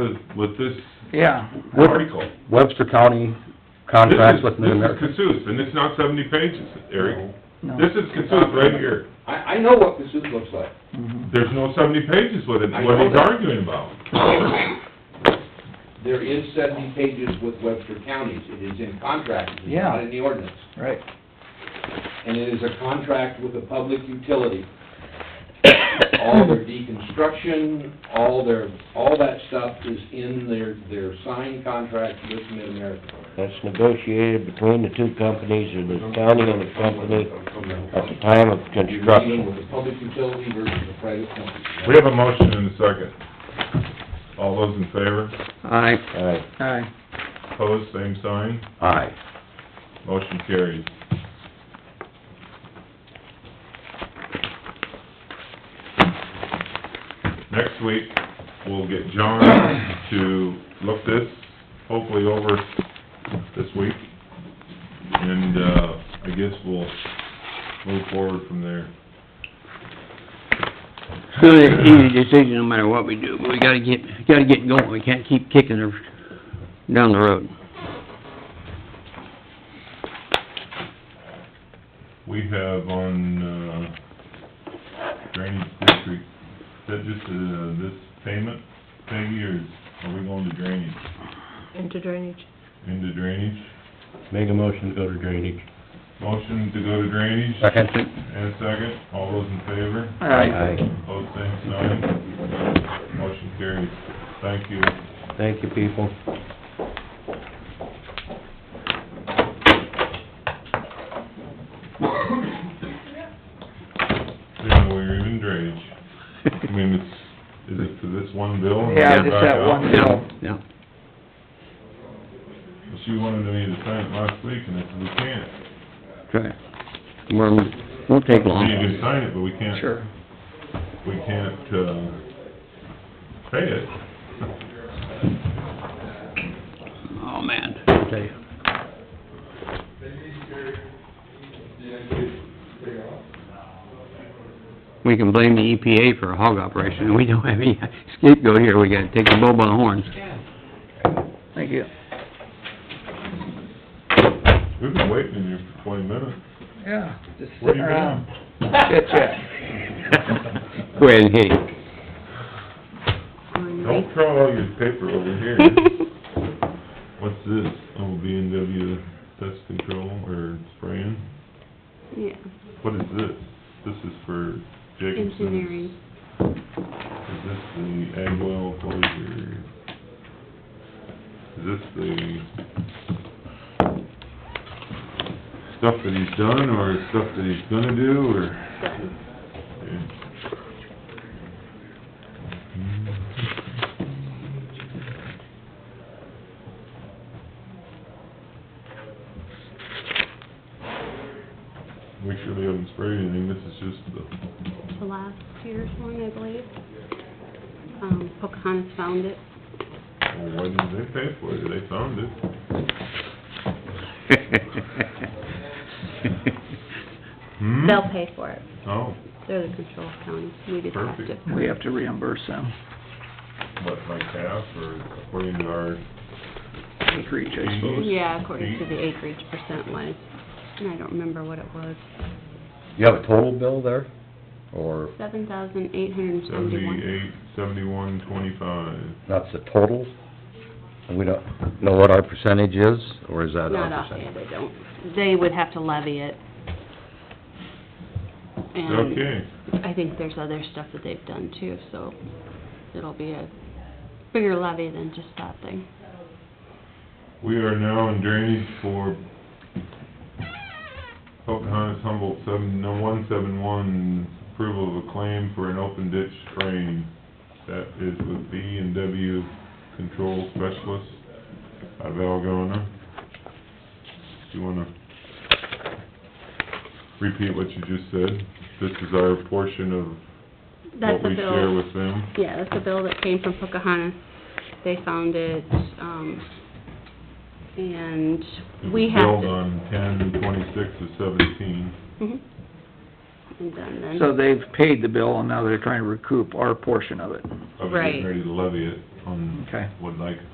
With with this Yeah. What- article. Webster County This contracts is, with Mid this is America. Cassuth, and it's not seventy pages, Eric. No. This is Cassuth right here. I, I know what Cassuth looks like. Mhm. There's no seventy pages with it, I what know he's that. arguing about. There is seventy pages with Webster counties, it is in contract, it is Yeah. not in the ordinance. Right. And it is a contract with a public utility. All their deconstruction, all their, all that stuff is in their, their signed contract with Mid-America. That's negotiated between the two companies, or the county and the company, at the time of You're dealing construction. with a public utility versus a private company. We have a motion and a second. All those in favor, Aye. Aye. Aye. opposed, same sign, Aye. motion carries. Next week, we'll get John to look this, hopefully over this week. And, uh, I guess we'll move forward from there. It's gonna be an easy decision no matter what we do, but we gotta get, gotta get going, we can't keep kicking her down the road. We have on, uh, drainage district, is that just, uh, this payment, Peggy, or is- are we going to drainage, into drainage. into drainage? Make a motion to go to drainage. Motion to go to drainage, Second. and a second, all those in favor? Aye. Both same sign, motion carries, thank you. Thank you, people. Yeah, we're in drainage, I mean, it's, is it for this one bill? and Yeah, then just back that out? one bill. Yeah, yeah. She wanted me to sign it last week, and I said, we can't, Try. Well, won't take we need long. to sign it, but we can't Sure. we can't, uh, pay it. Oh, man, I tell you. We can blame the EPA for a hog operation, and we don't have any scapegoat here, we gotta take the bull by the horns. Thank you. We've been waiting in here for twenty minutes. Yeah, just Where sitting you around, been? chit chat. Go ahead and hit it. Don't throw all your paper over here. What's this? Oh, B and W pest control or spraying? Yeah, What is this? This is for Jacobson's. engineering. Is this the ag well closure? Is this the stuff that he's done, or stuff that he's gonna do, or? Make sure they haven't sprayed anything, this is just the, The last year's one, I believe. Um, Pocahontas found it. well, why didn't they pay for it, they found it. Hmm? They'll pay for it. Oh, They're the control county. We just have to. Perfect. We have to reimburse them, what, like half, or according to our, acreage, I suppose. Yeah, according to the acreage percent wise. And I don't remember what it was. You have a total bill there, or Seven thousand eight hundred and seventy-one. seventy-eight, seventy-one, twenty-five? that's the total? And we don't know what our percentage is, or is that Not our percentage? offhand, I don't. They would have to levy it. And Okay, I think there's other stuff that they've done too, so it'll be a bigger levy than just that thing. we are now in drainage for Pocahontas Humboldt seven, no, one seven one, approval of a claim for an open ditch drain. That is with B and W Control Specialists out of Algona. Do you wanna repeat what you just said? This is our portion of That's what a we share bill, with them. yeah, that's a bill that came from Pocahontas. They found it, um, and we have Billed to. on ten twenty-six of seventeen. Mhm. And done then. So they've paid the bill and now they're trying to recoup our portion of it. I was getting Right. ready to levy it. on Okay. would like